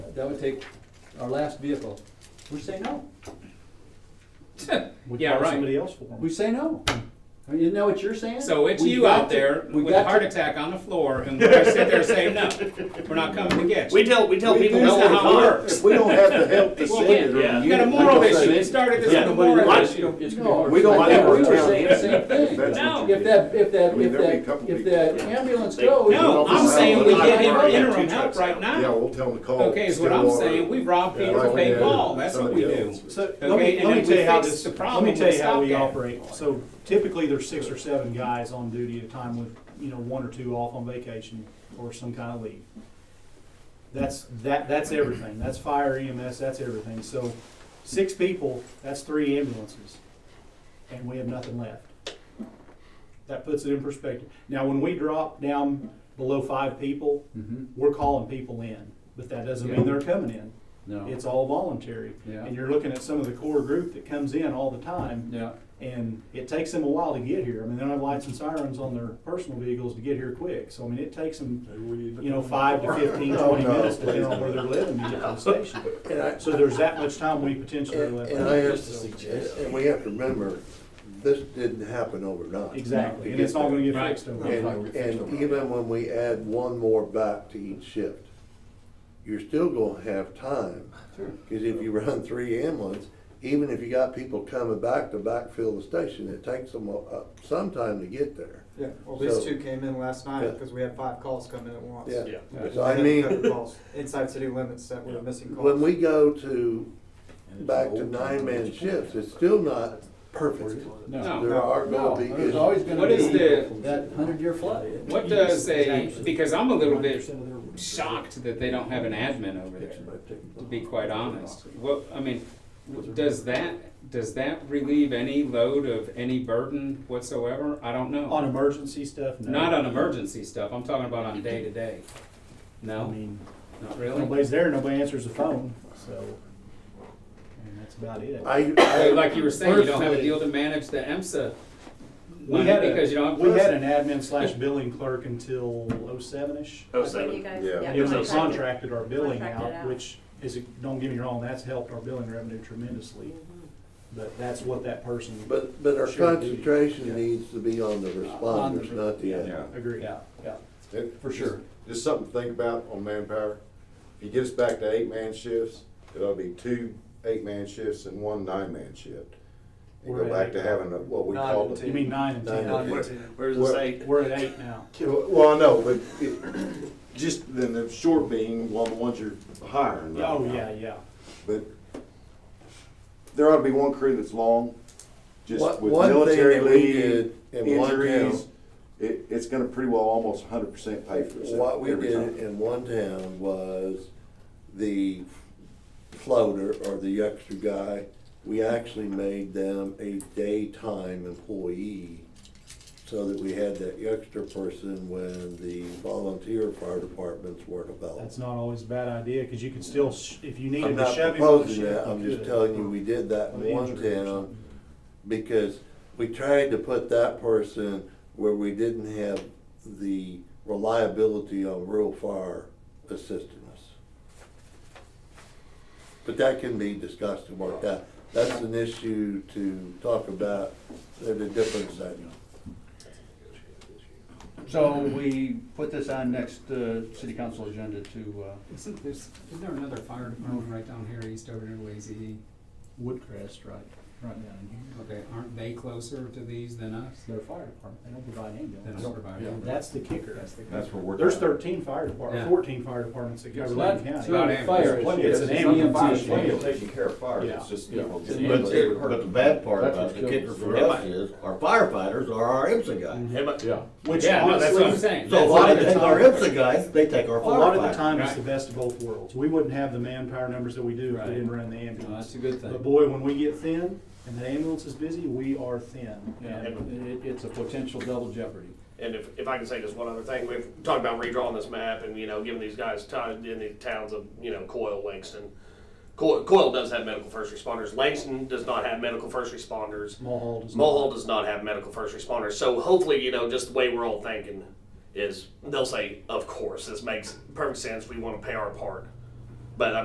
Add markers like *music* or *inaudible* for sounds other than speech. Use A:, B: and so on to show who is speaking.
A: that would take our last vehicle. We say no.
B: We
C: Yeah,
B: call
C: right.
B: somebody else for them.
A: We say no. I mean, you know what you're saying?
C: So it's
A: We've
C: you
A: got
C: out
A: to-
C: there
A: we've
C: with
A: got
C: a
A: to-
C: heart attack on the floor, and we're gonna sit there saying, no, we're not coming to get you.
D: We tell, we tell
C: We-
D: people
C: that's
D: no
C: not how
D: all
C: it
D: the time.
C: works.
E: If we don't have the help
D: *laughs*
E: to
C: Well,
E: send it,
D: yeah.
E: or
C: You got a
E: unit,
C: moral
E: we can
C: issue,
E: say
C: you
E: it.
C: started this
D: Yeah.
C: with a moral
D: Why-
C: issue.
A: It's gonna be
E: No,
A: hard.
E: we don't
A: I
E: have
A: think
E: our
A: We were
E: town
A: saying the same thing.
E: That's
C: No.
E: what you
A: If that, if that,
E: I mean,
A: if
E: there'll be a
A: that,
E: couple
A: if
E: people-
A: that
D: Yeah.
A: ambulance
D: They-
A: goes.
C: No, I'm saying we get him interim
D: Two
C: help
D: trucks
C: right
D: out.
E: Yeah,
C: now.
E: we'll tell them to call.
C: Okay, is what I'm
E: Stillwater.
C: saying, we rob Peter
E: Yeah.
C: to pay
E: Yeah.
C: Paul, that's what we
E: Somebody
C: do.
E: else.
B: So, let
C: Okay,
B: me,
C: and
B: let me
C: if
B: tell
C: we
B: you how
C: fix
B: this,
C: the
B: let
C: problem,
B: me
C: we
B: tell you how
C: stop
B: we
C: that.
B: operate. So typically, there's six or seven guys on duty at a time with, you know, one or two off on vacation or some kind of leave. That's, that, that's everything. That's fire EMS, that's everything. So six people, that's three ambulances. And we have nothing left. That puts it in perspective. Now, when we drop down below five people,
A: Mhm.
B: we're calling people in, but that doesn't mean they're coming in.
A: No,
B: It's all voluntary.
A: Yeah.
B: And you're looking at some of the core group that comes in all the time,
A: yeah,
B: and it takes them a while to get here. I mean, they don't have lights and sirens on their personal vehicles to get here quick. So, I mean, it takes them, you know, five to 15, 20
E: Oh, no,
B: minutes depending
E: please
B: on where they're living to get to the station.
E: And I,
B: So there's that much time we potentially
E: and
B: left.
E: and I have to suggest, and we have to remember, this didn't happen overnight.
B: Exactly, and it's not gonna get fixed overnight.
E: And, and even when we add one more back to each shift, you're still gonna have time. Cause if you run three ambulance, even if you got people coming back to backfill the station, it takes them a- a- some time to get there.
F: Yeah, well, these
E: So-
F: two came in last night
E: Yeah.
F: because we had five calls come in at once.
E: Yeah.
D: Yeah.
E: So I
F: And then a couple
E: mean,
F: calls Inside city limits that were missing calls.
E: when we go to, back to nine-man shifts, it's still not perfect.
C: Oh, No.
E: There are
A: no,
E: gonna be
A: there's
E: issues.
A: always gonna
C: What is
A: be
C: the-
A: that hundred-year flood.
C: What does a, because I'm a little bit shocked that they don't have an admin over there, to be quite honest. What, I mean, does that, does that relieve any load of any burden whatsoever? I don't
B: On
C: know.
B: emergency stuff, no.
C: Not on emergency stuff, I'm talking about on day to day.
B: I
C: No,
B: mean,
C: not really?
B: nobody's there, nobody answers the phone, so, and that's about it.
C: So
E: I, I,
C: Like you were saying, you don't have a
B: Personally-
C: deal to manage the EMSA
B: We
C: money
B: had a-
C: because you don't have.
B: We had an admin slash billing clerk until oh-seven-ish.
D: Oh,
G: That's when you
D: seven.
G: guys-
E: Yeah.
G: yeah,
B: It was a
G: contracted.
B: contracted our billing
G: Contracted
B: out,
G: out.
B: which is, don't get me wrong, that's helped our billing revenue tremendously. But that's what that person.
E: but, but our
B: Sure, dude.
E: concentration
B: Yeah.
E: needs to be on the
A: On the-
E: responders, not the admin.
B: Agree, yeah, yeah.
A: For sure.
H: Just something to think about oh on manpower. If you get us back to eight-man shifts, it'll be two eight-man shifts and one nine-man shift. And
B: We're
H: go
B: at
H: back to
B: eight.
H: having a, what we
F: Nine
H: call
F: and
H: the.
B: You mean nine and
E: Nine
B: ten?
E: and
D: Where- Where's the
H: Well-
D: state?
B: We're at eight now.
H: Well, I know, but it, just then the short being, well, the ones you're hiring. right
B: Oh,
H: now.
B: yeah, yeah.
H: But there ought to be one crew that's long,
E: One-
H: just with
E: one thing
H: military
E: that we
H: leave,
E: did in one
H: injuries.
E: town-
H: It, it's gonna pretty well almost hundred percent pay for itself.
E: What we
H: every time.
E: did in one town was the floater or the extra guy, we actually made them a daytime employee so that we had that extra person when the volunteer fire departments weren't
B: That's
E: available.
B: not always a bad idea, cause you can still, sh- if you needed
E: I'm
B: to
E: not
B: shove him on the
E: proposing
B: ship.
E: that,
B: you
E: I'm just
B: could.
E: telling you, we did that
B: With
E: in one
B: injury or
E: town
B: something.
E: because we tried to put that person where we didn't have the reliability on rural fire assisting us. But that can be discussed and worked out. That's an issue to talk about at a different setting.
I: So we put this on next uh, city council agenda to, uh,
C: Isn't there's, isn't there another fire department right down here east over near Lazy?
B: Woodcrest, right, right down here.
C: Okay, aren't they closer to these than us?
B: Their fire department, they don't provide
C: They
B: ambulance.
C: don't provide
B: Yeah,
C: ambulance.
B: That's the kicker.
H: That's where we're.
B: There's thirteen fire departments,
C: Yeah.
B: fourteen fire departments that cover
A: It's
B: Lincoln
A: not,
B: County.
A: it's not a fire issue.
B: It's an ambulance issue.
H: taking care of fires,
B: it's
H: just,
I: you know,
J: But, the- but the bad part about the kicker for us is, our firefighters are our IPSA guys.
D: Yeah, but-
J: Yeah.
B: Which
C: Yeah, no, that's what I'm
B: honestly,
C: saying.
J: So
C: That's-
J: why they take our IPSA guys, they take our
B: a lot of the
J: firefighters.
B: time, it's
C: Right.
B: the best of both worlds. We wouldn't have the manpower numbers that we do if
C: Right.
B: we didn't run the
A: No,
B: ambulance.
A: that's a good
B: But
A: thing.
B: boy, when we get thin and the ambulance is busy, we are thin.
I: and it, it's a potential double jeopardy.
D: And if, if I can say just one other thing, we've talked about redrawing this map and, you know, giving these guys time in the towns of, you know, Coyle, Langston. Coyle, Coyle does have medical first responders. Langston does not have medical first responders.
B: Mulhall does not.
D: Mulhall does not have medical first responders. So hopefully, you know, just the way we're all thinking is they'll say, of course, this makes perfect sense. We want to pay our part. But I